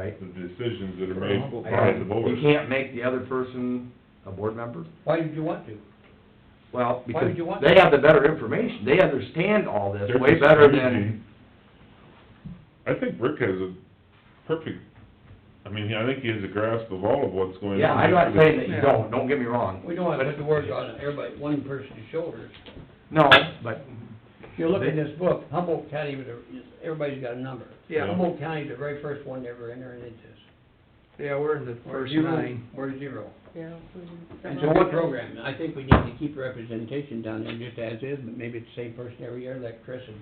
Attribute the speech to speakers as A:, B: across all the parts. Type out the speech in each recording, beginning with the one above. A: Right.
B: the decisions that are made
A: Well,
B: by the board.
C: You can't make the other person a board member?
A: Why did you want to?
C: Well,
A: Why
C: because
A: would you want
C: they have the better information, they understand all this
B: They're
C: way
B: just
C: better
B: crazy.
C: than,
B: I think Rick has a perfect, I mean, I think he has a grasp of all of what's going on.
C: yeah, I'm not saying that you
A: Yeah.
C: don't, don't get me wrong.
A: We don't want to put
C: But-
A: the words on everybody, one person's shoulders.
C: No, but,
A: If you look at this book, Humboldt County, was a- is- everybody's got a number.
D: Yeah.
A: Humboldt County's the very first one to ever enter into this.
D: Yeah, we're in the
A: We're
D: first
A: zero-
D: nine.
A: We're zero.
E: Yeah. we-
A: And so what program? I think we need to keep representation down there just as is, but maybe it's the same person every year, like Chris and,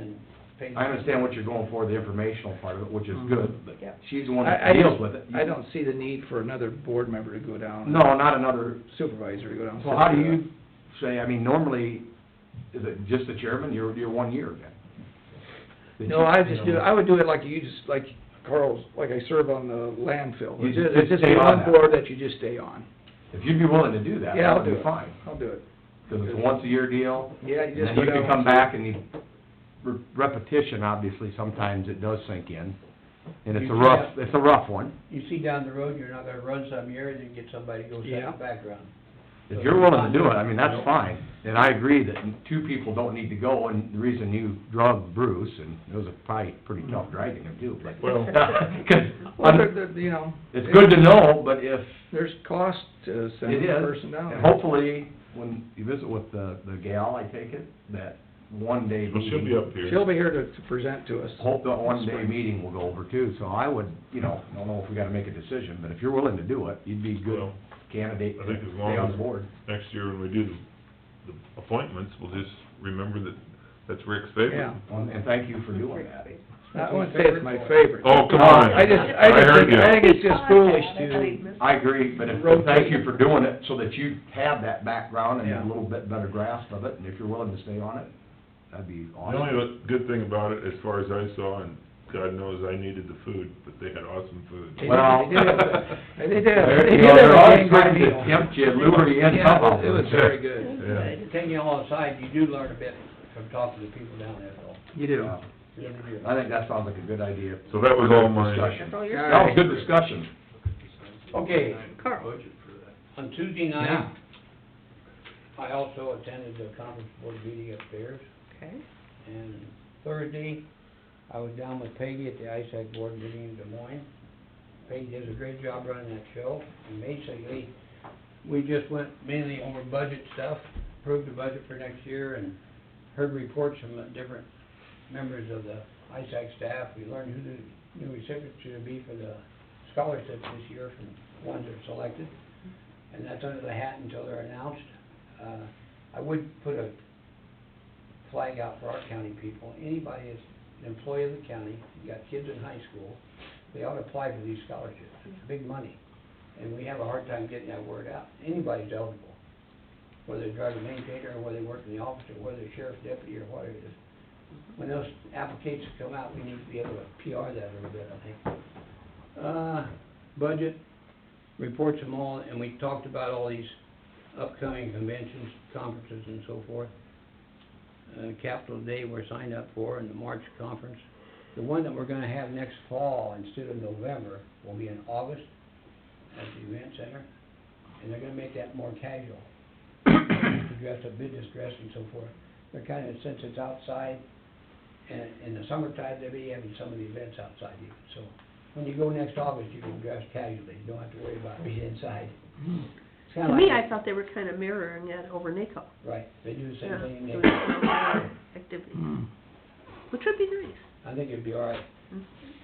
A: and Peggy.
C: I understand what you're going for, the informational part of it, which is
D: Mhm.
C: good, but
E: Yep.
C: she's the one
D: I,
C: that
D: I
C: deals
D: don't,
C: with it.
D: I don't see the need for another board member to go down.
C: No, not another,
D: Supervisor to go down. and
C: so how
D: sit
C: do
D: through
C: you say, I mean, normally, is it just the chairman, you're, you're one year then?
D: that.
C: That
D: No,
C: you-
D: I
C: you
D: just
C: know,
D: do, I would do it like you just, like Carl's, like I serve on the landfill.
C: You
D: It's
C: just-
D: just- It's
C: just
D: just
C: stay on
D: one
C: that.
D: board that you just stay on.
C: If you'd be willing to do that,
D: Yeah,
C: that
D: I'll
C: would
D: do
C: be
D: it.
C: fine,
D: I'll do it.
C: because it's a once a year deal,
D: Yeah,
C: and
D: you
C: then
D: just go
C: you
D: down.
C: can come back and you, re- repetition, obviously, sometimes it does sink in. And it's a rough, it's a rough one.
A: You see down the road, you're not gonna run some year, and then get somebody to go set
D: Yeah.
A: the background.
C: If you're willing to do it, I mean, that's fine, and I agree that two people don't need to go, and the reason you drug Bruce, and it was a probably pretty tough dragging him too, but.
B: Well-
D: Well,
C: Cause,
D: there- there- you know.
C: it's good to know, but if
D: There's cost to send
C: it
D: the
C: is,
D: person down.
C: and hopefully, when you visit with the, the gal, I take it, that one day
B: Well, she'll be
C: meeting,
B: up here.
D: She'll be here to, to present to us.
C: hope that one day meeting will go over too, so I would, you know, I don't know if we gotta make a decision, but if you're willing to do it, you'd be a good
B: Well,
C: candidate
B: I
C: to
B: think as
C: stay
B: long
C: on
B: as-
C: board.
B: Next year when we do the the appointments, we'll just remember that that's Rick's favorite.
D: Yeah.
C: And and thank you for doing that.
D: I wouldn't say it's my favorite.
B: Oh, come on.
D: Uh, I just, I just,
B: heard
D: think- I
B: you.
D: think it's
E: Oh,
D: just foolish to,
E: to.
C: I agree, but if, but thank you for doing it, so that you have that background and a little bit better grasp of it, and if you're willing to stay on it, that'd be
B: The
C: awesome.
B: only good thing about it, as far as I saw, and God knows I needed the food, but they had awesome food.
C: Well-
D: they did, they did,
C: There- you
D: they did
C: know,
D: have
C: there
D: a
C: are
D: dang good
C: times that
D: deal.
C: tempt you, lure you in
D: Yeah, it
C: somehow.
D: was- it was very good.
B: Yeah.
A: Taking you all aside, you do learn a bit from talking to people down there, though.
D: You do.
A: You really do.
C: I think that sounds like a good idea.
B: So that was all mine.
C: Discussion.
E: That's all your.
D: All
C: That was
D: right.
C: good discussion.
A: Okay,
E: Carl.
A: on Tuesday
C: Yeah.
A: night, I also attended the conference board meeting upstairs,
E: Okay.
A: and Thursday, I was down with Peggy at the ISAC board meeting in Des Moines. Peggy does a great job running that show, and basically, we just went mainly over budget stuff, approved the budget for next year, and heard reports from the different members of the ISAC staff. We learned who the new recipients should be for the scholarships this year from the ones that are selected. And that's under the hat until they're announced. Uh, I would put a flag out for our county people. Anybody that's an employee of the county, you got kids in high school, they ought to apply for these scholarships. It's big money. And we have a hard time getting that word out. Anybody's eligible, whether they drive a maintainer, or whether they work in the office, or whether they're sheriff's deputy, or what it is. When those applications come out, we need to be able to PR that a little bit, I think. Uh, budget, reports them all, and we talked about all these upcoming conventions, conferences and so forth. Uh, Capital Day we're signed up for and the March conference. The one that we're gonna have next fall instead of November will be in August at the event center. And they're gonna make that more casual. Dress up, business dress and so forth. They're kinda, since it's outside, and in the summertime, they'll be having some of the events outside even, so. When you go next August, you can dress casually. You don't have to worry about being inside. It's kinda
E: Mm-hmm. To me,
A: like-
E: I thought they were kind of mirroring it over NACO.
A: Right, they do the same
E: Yeah,
A: thing in
E: doing
A: Naples.
E: similar Activities,
D: Hmm.
E: which would be nice.
A: I think it'd be all right.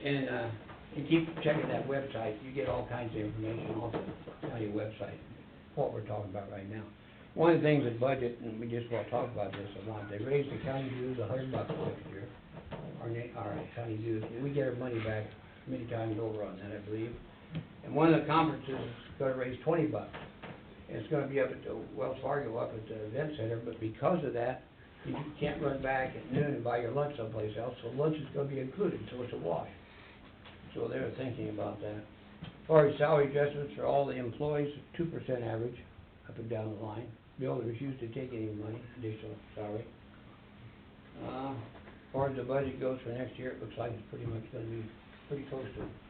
A: And, uh, you keep checking that website, you get all kinds of information off the county website, what we're talking about right now. One of the things with budget, and we just wanna talk about this a lot, they raised the county dues a hundred bucks next year. Our na- our county dues, we get our money back many times over on that, I believe. And one of the conferences is gonna raise twenty bucks. And It's gonna be up at the Wells Fargo, up at the event center, but because of that, you can't run back at noon and buy your lunch someplace else, so lunch is gonna be included, so it's a wash. So they were thinking about that. As far as salary adjustments for all the employees, two percent average, up and down the line. Bill refused to take any money, additional salary. Uh, as far as the budget goes for next year, it looks like it's pretty much gonna be pretty close to